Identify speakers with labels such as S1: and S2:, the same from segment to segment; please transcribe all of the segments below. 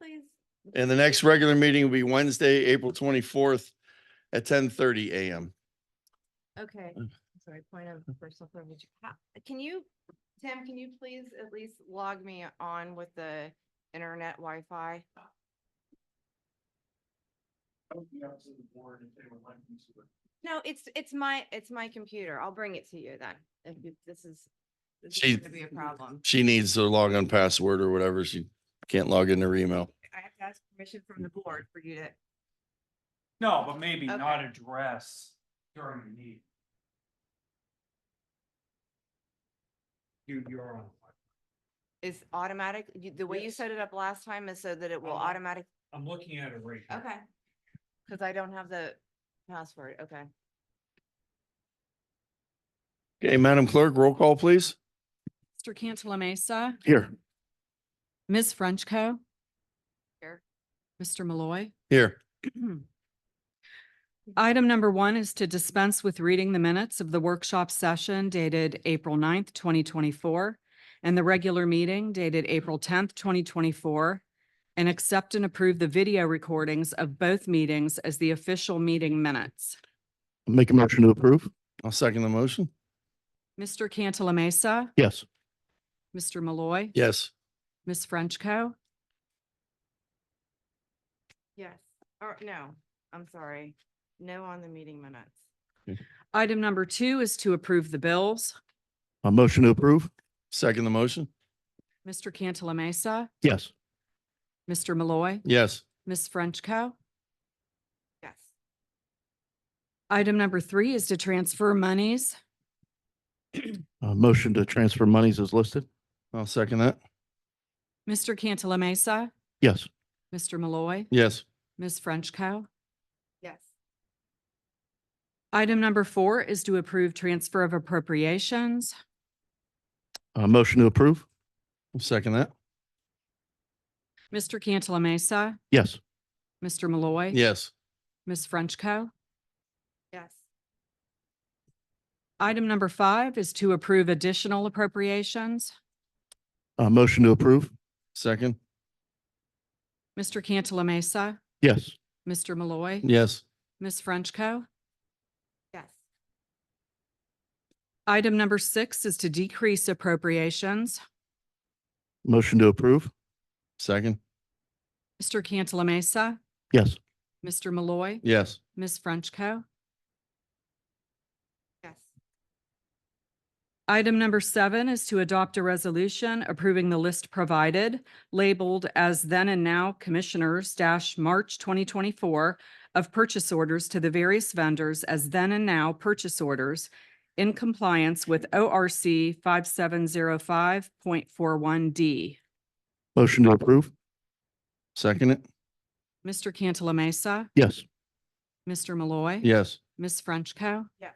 S1: please?
S2: And the next regular meeting will be Wednesday, April twenty-fourth at ten thirty AM.
S1: Okay, sorry, point of personal privilege. How- Can you, Tim, can you please at least log me on with the internet Wi-Fi? No, it's, it's my, it's my computer. I'll bring it to you then. If you- this is, this
S2: She-
S1: is gonna be a problem.
S2: She needs her login password or whatever. She can't log in her email.
S1: I have to ask permission from the board for you to,
S3: No, but maybe
S1: Okay.
S3: not address during the meeting. You, you're on.
S1: is automatic, you- the way you
S3: Yes.
S1: set it up last time is so that it will
S3: Uh-huh.
S1: automatic,
S3: I'm looking at it right here.
S1: okay. Cause I don't have the password, okay.
S2: Okay, Madam Clerk, roll call, please.
S4: Mr. Cantala Mesa,
S2: Here.
S4: Ms. Frenchco.
S1: Here.
S4: Mr. Malloy.
S2: Here.
S4: Item number one is to dispense with reading the minutes of the workshop session dated April 9th, twenty twenty-four, and the regular meeting dated April tenth, twenty twenty-four, and accept and approve the video recordings of both meetings as the official meeting minutes.
S5: Make a motion to approve?
S2: I'll second the motion.
S4: Mr. Cantala Mesa,
S5: Yes.
S4: Mr. Malloy,
S2: Yes.
S4: Ms. Frenchco.
S1: Yes, or no, I'm sorry. No on the meeting minutes.
S4: Item number two is to approve the bills.
S5: A motion to approve?
S2: Second the motion.
S4: Mr. Cantala Mesa,
S5: Yes.
S4: Mr. Malloy,
S2: Yes.
S4: Ms. Frenchco.
S1: Yes,
S4: Item number three is to transfer monies.
S5: A motion to transfer monies is listed?
S2: I'll second that.
S4: Mr. Cantala Mesa,
S5: Yes.
S4: Mr. Malloy,
S2: Yes.
S4: Ms. Frenchco.
S1: yes,
S4: Item number four is to approve transfer of appropriations.
S5: A motion to approve?
S2: I'll second that.
S4: Mr. Cantala Mesa,
S5: Yes.
S4: Mr. Malloy.
S2: Yes.
S4: Ms. Frenchco.
S1: yes,
S4: Item number five is to approve additional appropriations.
S5: A motion to approve?
S2: Second.
S4: Mr. Cantala Mesa,
S5: Yes.
S4: Mr. Malloy,
S2: Yes.
S4: Ms. Frenchco.
S1: yes,
S4: Item number six is to decrease appropriations.
S5: Motion to approve?
S2: Second.
S4: Mr. Cantala Mesa,
S5: Yes.
S4: Mr. Malloy,
S2: Yes.
S4: Ms.
S1: yes,
S4: Frenchco. Item number seven is to adopt a resolution approving the list provided labeled as then and now Commissioners dash March twenty twenty-four of purchase orders to the various vendors as then and now purchase orders in compliance with O R C five seven zero five point four one D.
S5: Motion to approve?
S2: Second it.
S4: Mr. Cantala Mesa,
S5: Yes.
S4: Mr. Malloy.
S2: Yes.
S4: Ms. Frenchco.
S1: yes,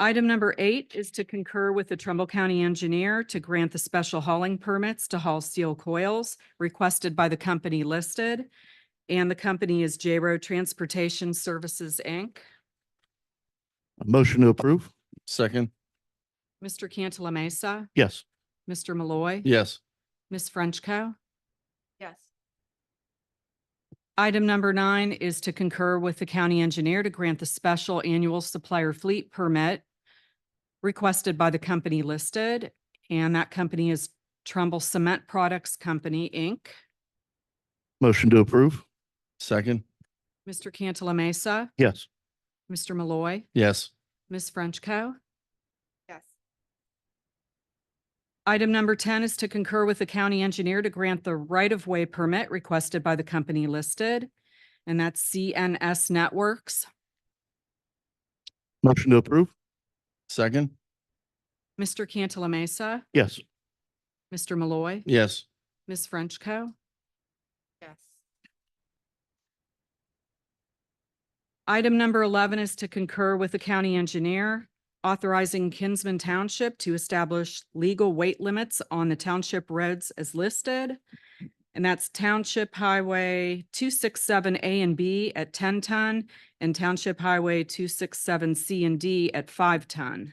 S4: Item number eight is to concur with the Trumbull County Engineer to grant the special hauling permits to haul steel coils requested by the company listed. And the company is J Row Transportation Services, Inc.
S5: A motion to approve?
S2: Second.
S4: Mr. Cantala Mesa,
S5: Yes.
S4: Mr. Malloy,
S2: Yes.
S4: Ms. Frenchco.
S1: yes,
S4: Item number nine is to concur with the county engineer to grant the special annual supplier fleet permit requested by the company listed, and that company is Trumbull Cement Products Company, Inc.
S5: Motion to approve?
S2: Second.
S4: Mr. Cantala Mesa,
S5: Yes.
S4: Mr. Malloy,
S2: Yes.
S4: Ms. Frenchco.
S1: yes,
S4: Item number 10 is to concur with the county engineer to grant the right-of-way permit requested by the company listed, and that's CNS Networks.
S5: Motion to approve?
S2: Second.
S4: Mr. Cantala Mesa,
S5: Yes.
S4: Mr. Malloy,
S2: Yes.
S4: Ms. Frenchco.
S1: yes,
S4: Item number 11 is to concur with the county engineer authorizing Kinsman Township to establish legal weight limits on the township roads as listed. And that's Township Highway 267 A and B at 10 ton and Township Highway 267 C and D at 5 ton.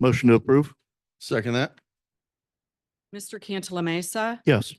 S5: Motion to approve?
S2: Second that.
S4: Mr. Cantala Mesa,
S5: Yes.